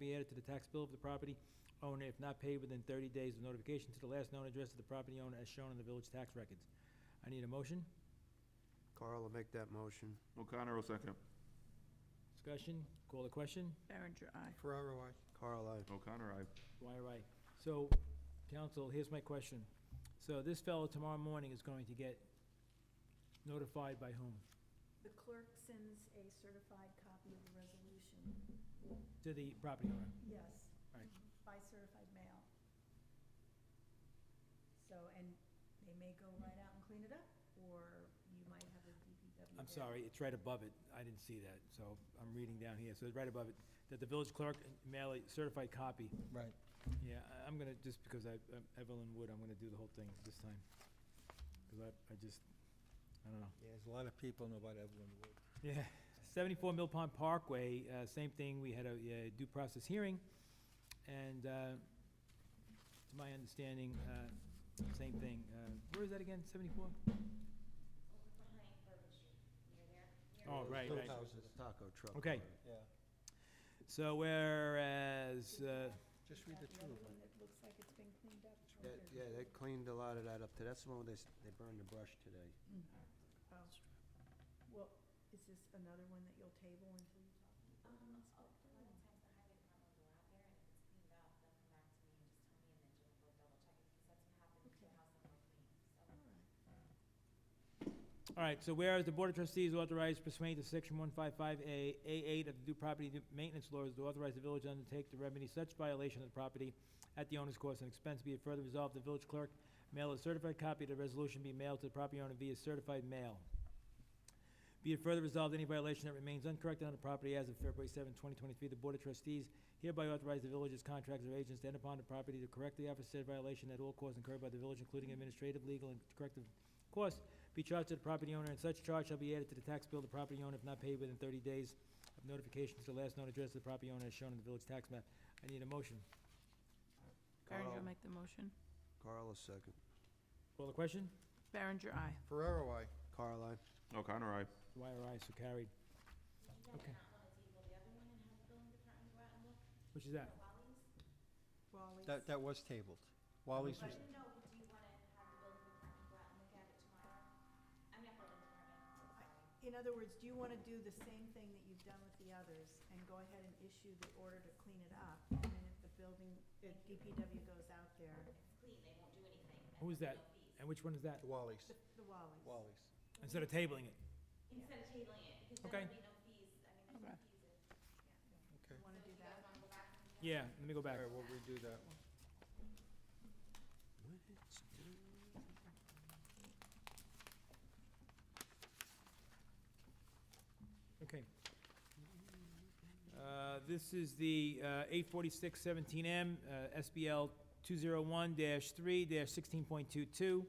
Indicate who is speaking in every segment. Speaker 1: be added to the tax bill of the property owner if not paid within thirty days of notification to the last known address of the property owner as shown in the village tax records. I need a motion,
Speaker 2: Carl will make that motion.
Speaker 3: O'Connor will second.
Speaker 1: discussion, call the question,
Speaker 4: Berenger, aye.
Speaker 5: Ferraro, I.
Speaker 2: Carl, I.
Speaker 3: O'Connor, aye.
Speaker 1: why are I? So, council, here's my question. So this fellow tomorrow morning is going to get notified by whom?
Speaker 6: The clerk sends a certified copy of the resolution,
Speaker 1: To the property owner.
Speaker 6: yes.
Speaker 1: Right.
Speaker 6: By certified mail. So, and they may go right out and clean it up, or you might have a DPW.
Speaker 1: I'm
Speaker 6: there.
Speaker 1: sorry, it's right above it. I didn't see that, so I'm reading down here. So it's right above it, that the village clerk mail a certified copy.
Speaker 5: Right.
Speaker 1: Yeah, I- I'm gonna, just because I, I'm Evelyn Wood, I'm gonna do the whole thing this time. Because I, I just, I don't know.
Speaker 5: Yeah, There's a lot of people know about Evelyn Wood.
Speaker 1: Yeah, 74 Mill Pond Parkway, uh, same thing, we had a uh, due process hearing, and uh, to my understanding, uh, same thing. Uh, Where is that again, 74? Oh, right, right.
Speaker 2: Taco truck.
Speaker 1: Okay.
Speaker 2: barn.
Speaker 5: Yeah.
Speaker 1: So whereas, uh,
Speaker 5: Just
Speaker 6: Is
Speaker 5: read
Speaker 6: that
Speaker 5: the
Speaker 6: the
Speaker 5: two
Speaker 6: other
Speaker 5: of them.
Speaker 6: one that looks like it's been cleaned up? or
Speaker 2: That,
Speaker 6: there's-
Speaker 2: yeah, they cleaned a lot of that up today. That's the one where they, s- they burned the brush today.
Speaker 6: Oh. Well, is this another one that you'll table until you talk?
Speaker 1: all right, so whereas the Board of Trustees authorized pursuant to Section 155A, A8 of the due property Di- maintenance laws to authorize the village to undertake to remedy such violation of the property at the owner's cost and expense, be it further resolved, the village clerk mail a certified copy of the resolution be mailed to the property owner via certified mail. Be it further resolved, any violation that remains uncorrected on the property as of February 7, 2023, the Board of Trustees hereby authorize the village's contractors or agents to enter upon the property to correct the officer said violation at all costs incurred by the village, including administrative, legal, and corrective costs, be charged to the property owner, and such charge shall be added to the tax bill of the property owner if not paid within 30 days of notification to the last known address of the property owner as shown in the village tax map. I need a motion.
Speaker 4: Berenger
Speaker 2: Carl-
Speaker 4: will make the motion.
Speaker 2: Carl will second.
Speaker 1: Call the question?
Speaker 4: Berenger, aye.
Speaker 5: Ferraro, I.
Speaker 2: Carl, I.
Speaker 3: O'Connor, aye.
Speaker 1: Why are ayes so carried? Okay. Which is that?
Speaker 6: Raleigh's?
Speaker 5: That, that was tabled. Wally's was,
Speaker 6: In other words, do you want to do the same thing that you've done with the others and go ahead and issue the order to clean it up? And then if the building, if DPW goes out there,
Speaker 1: Who is that? And which one is that?
Speaker 5: Wally's.
Speaker 6: the- the Wally's.
Speaker 5: Wally's.
Speaker 1: Instead of tabling it.
Speaker 7: Instead of tabling it, because
Speaker 1: Okay.
Speaker 7: then there'll be no fees, I mean, there's no
Speaker 4: Okay.
Speaker 7: fees.
Speaker 5: Okay.
Speaker 7: if-
Speaker 6: You want to do
Speaker 7: if you
Speaker 6: that?
Speaker 7: guys wanna go back and
Speaker 1: Yeah, let me
Speaker 5: All
Speaker 1: go back.
Speaker 5: right, we'll redo that one.
Speaker 1: Okay. Uh, This is the uh, eight forty-six seventeen M, uh, SBL two zero one three sixteen point two two.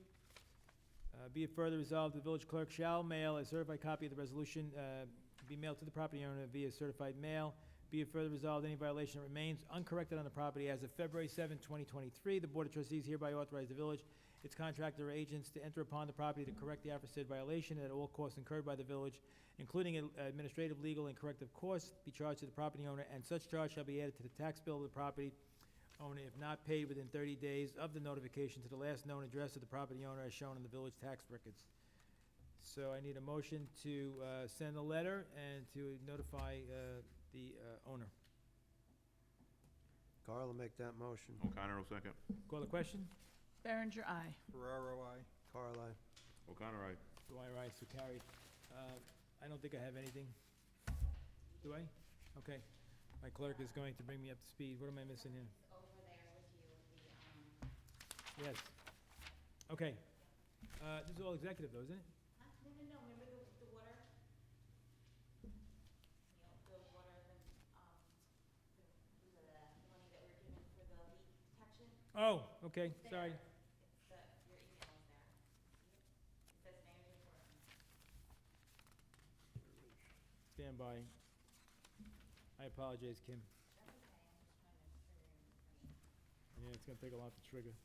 Speaker 1: Uh, Be it further resolved, the village clerk shall mail a certified copy of the resolution, uh, be mailed to the property owner via certified mail. Be it further resolved, any violation that remains uncorrected on the property as of February 7, 2023, the Board of Trustees hereby authorize the village, its contractor or agents to enter upon the property to correct the aforesaid violation at all costs incurred by the village, including ad- administrative, legal, and corrective costs, be charged to the property owner, and such charge shall be added to the tax bill of the property owner if not paid within thirty days of the notification to the last known address of the property owner as shown in the village tax records. So I need a motion to uh, send a letter and to notify uh, the uh, owner.
Speaker 2: Carl will make that motion.
Speaker 3: O'Connor will second.
Speaker 1: Call the question?
Speaker 4: Berenger, aye.
Speaker 5: Ferraro, I.
Speaker 2: Carl, I.
Speaker 3: O'Connor, aye.
Speaker 1: Do I rise so carried? Uh, I don't think I have anything. Do I? Okay. My clerk is going to bring me up to speed. What am I missing here?
Speaker 7: it's over there with you, the, um,
Speaker 1: Yes. Okay. Uh, This is all executive though, isn't it?
Speaker 7: huh? no, no, no, remember the, the water? You know, the water, the, um, the, the money that we're given for the leak protection?
Speaker 1: Oh, okay,
Speaker 7: It's
Speaker 1: sorry.
Speaker 7: there. It's the, your email is there. It says mayor's report.
Speaker 1: Stand by. I apologize, Kim.
Speaker 7: That's okay, I'm just trying to figure, I
Speaker 1: Yeah, it's gonna take a lot
Speaker 7: mean,
Speaker 1: to trigger.
Speaker 7: It's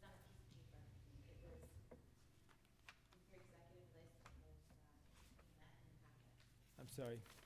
Speaker 7: not a piece of paper. It was your executive list was, uh, in that in the
Speaker 1: I'm
Speaker 7: packet.
Speaker 1: sorry.